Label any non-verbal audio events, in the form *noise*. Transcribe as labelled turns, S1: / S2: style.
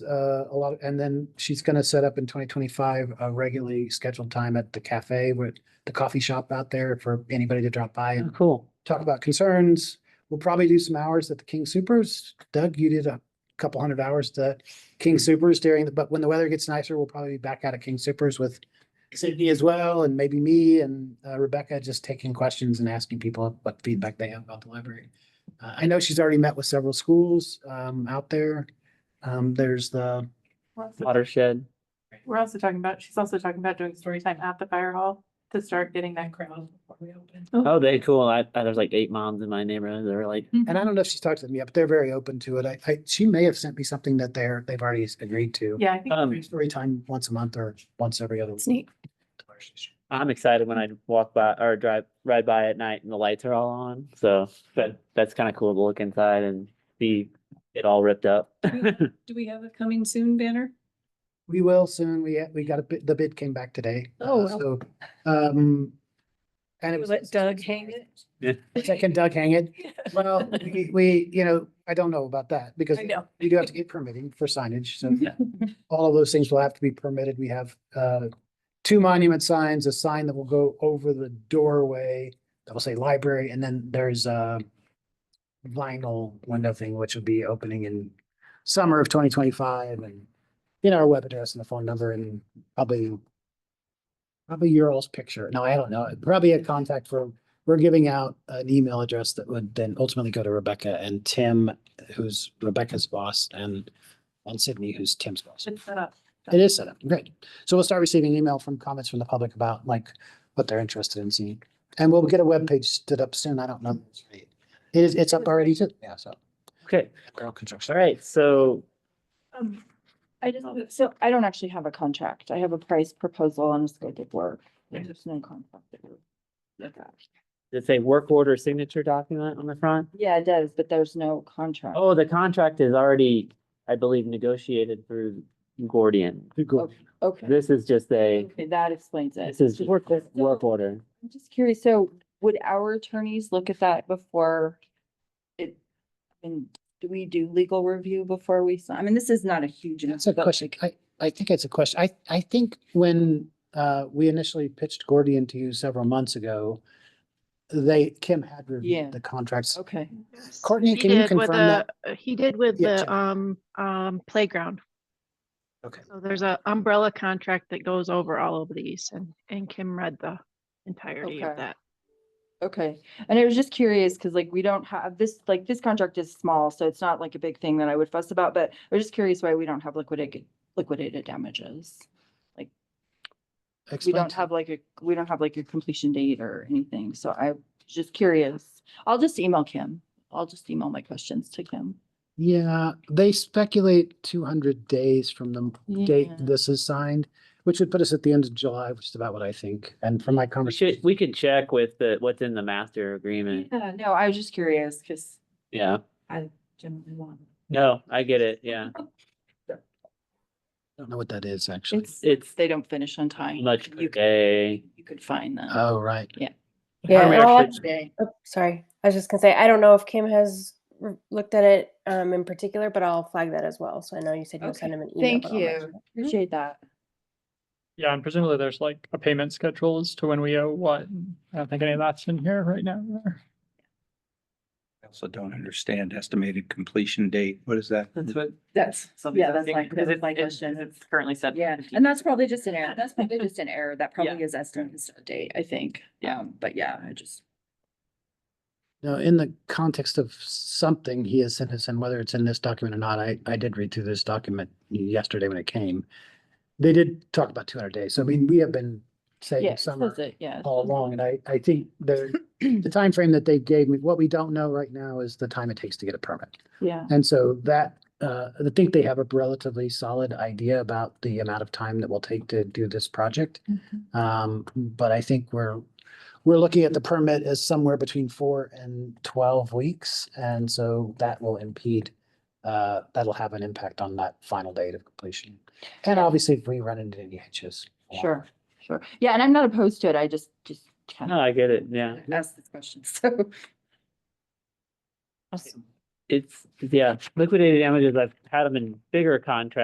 S1: uh, a lot, and then she's gonna set up in twenty twenty-five a regularly scheduled time at the cafe with the coffee shop out there for anybody to drop by and
S2: Cool.
S1: talk about concerns. We'll probably do some hours at the King Supers. Doug, you did a couple hundred hours to King Supers during, the but when the weather gets nicer, we'll probably be back out at King Supers with Sydney as well, and maybe me and uh, Rebecca just taking questions and asking people what feedback they have about the library. Uh, I know she's already met with several schools um, out there. Um, there's the,
S3: We're also-
S2: Watershed.
S3: we're also talking about, she's also talking about doing story time at the fire hall to start getting that crowd before we open.
S2: Oh, they cool. I, I there's like eight moms in my neighborhood. They're like,
S1: and
S4: Mm-hmm.
S1: I don't know if she's talked to them yet, but they're very open to it. I, I, she may have sent me something that they're, they've already agreed to.
S3: Yeah, I think.
S2: Um,
S3: there's-
S1: Story time once a month or once every other. week.
S4: Sneak.
S2: I'm excited when I walk by or drive ride by at night and the lights are all on. So that that's kind of cool to look inside and see it all ripped up. *laughs*
S4: Do we have a coming soon banner?
S1: We will soon. We, we got a bid, the bid came back today.
S4: Oh,
S1: Uh,
S4: well.
S1: So, um, and it was.
S4: Let Doug hang it?
S1: Second Doug
S4: *laughs*
S1: hang it.
S4: Yeah.
S1: Well, we, we, you know, I don't know about that because
S4: I know. Mm-hmm.
S1: we do have to get permitting for signage. So
S2: Yeah.
S1: all of those things will have to be permitted. We have, uh, two monument signs, a sign that will go over the doorway that will say library, and then there's a vinyl window thing, which will be opening in summer of twenty twenty-five and, you know, our web address and the phone number and probably probably your all's picture. No, I don't know. Probably a contact for, we're giving out an email address that would then ultimately go to Rebecca and Tim, who's Rebecca's boss, and and Sydney, who's Tim's boss.
S3: It's set up.
S1: It is set up. Great. So we'll start receiving email from comments from the public about like what they're interested in seeing. And we'll get a webpage stood up soon. I don't know. It is, it's up already too. Yeah, so.
S2: Okay.
S1: Girl
S2: All
S1: construction.
S2: right. So
S5: Um, I just, so I don't actually have a contract. I have a price proposal and a scope of work. There's no contract. that we're-
S2: it's a work order signature document on the front.
S5: Yeah, it does, but there's no contract.
S2: Oh, the contract is already, I believe, negotiated through Gordian.
S1: Oh,
S5: Okay,
S2: This is just a,
S5: okay, that explains it.
S2: this is
S5: Just-
S2: work, work order.
S5: I'm just curious, so would our attorneys look at that before it? And do we do legal review before we, sign? I mean, this is not a huge.
S1: That's a
S5: amount, but
S1: question.
S5: like-
S1: I, I think it's a question. I, I think when, uh, we initially pitched Gordian to you several months ago, they, Kim had
S5: Yeah.
S1: reviewed the contracts.
S5: Okay,
S1: Courtney,
S6: He
S1: can you
S6: did with
S1: confirm that?
S6: the- He did with
S1: Yeah,
S6: the
S1: Jen.
S6: um, um, playground.
S1: Okay.
S6: So there's a umbrella contract that goes over all of these and, and Kim read the entirety of
S5: Okay.
S6: that.
S5: okay. And I was just curious, because like we don't have this, like this contract is small, so it's not like a big thing that I would fuss about, but I was just curious why we don't have liquidated, liquidated damages. We
S1: Explain
S5: don't
S1: to-
S5: have like a, we don't have like a completion date or anything, so I was just curious. I'll just email Kim. I'll just email my questions to Kim.
S1: Yeah, they speculate two hundred days from the m- date
S5: Yeah.
S1: this is signed, which would put us at the end of July, which is about what I think. And from my
S2: We should,
S1: conversation,
S2: we could check with the, what's in the master agreement.
S5: Yeah, no, I was just curious, because
S2: Yeah.
S5: I generally want.
S2: No, I get it. Yeah.
S1: I don't know what that is actually.
S2: It's
S5: It's, it's, they don't finish on time.
S2: much Uh,
S5: You could,
S2: okay.
S5: you could find them.
S1: Oh, right.
S7: Yeah,
S2: we
S7: and I'll
S2: actually-
S7: act- oh, sorry. I was just gonna say I don't know if Kim has r- looked at it um, in particular, but I'll flag that as well. So I know you said you'll send him an email.
S5: Thank
S7: but I'll mention
S5: you. Appreciate that.
S8: Yeah, and presumably there's like a payment schedule as to when we owe what. and I don't think any of that's in here right now.
S9: I also don't understand estimated completion date. What is that?
S2: That's what.
S5: That's, yeah, that's my, that was my question.
S2: It's currently set.
S5: Yeah, and that's probably just an error. That's *laughs* probably just an error. That probably is estimated start date, I think. Um, but yeah, I just.
S1: No, in the context of something he has sent us, and whether it's in this document or not, I, I did read through this document yesterday when it came. They did talk about two hundred days. So I mean, we have been saying summer
S5: Yeah. *laughs*
S1: all along, and I, I think the, the
S5: *clears throat*
S1: timeframe that they gave me, what we don't know right now is the time it takes to get a permit.
S5: Yeah.
S1: And so that, uh, I think they have a relatively solid idea about the amount of time that will take to do this project.
S5: Mm-hmm.
S1: Um, but I think we're, we're looking at the permit as somewhere between four and twelve weeks. And so that will impede, uh, that'll have an impact on that final date of completion. And obviously, if we run into any hitches. yeah.
S5: Sure, sure. Yeah, and I'm not opposed to it. I just, just kind
S2: No,
S5: of
S2: I get it. Yeah.
S5: asked this question, *laughs* so.
S2: It's, yeah, liquidated damages. I've had them in bigger contracts.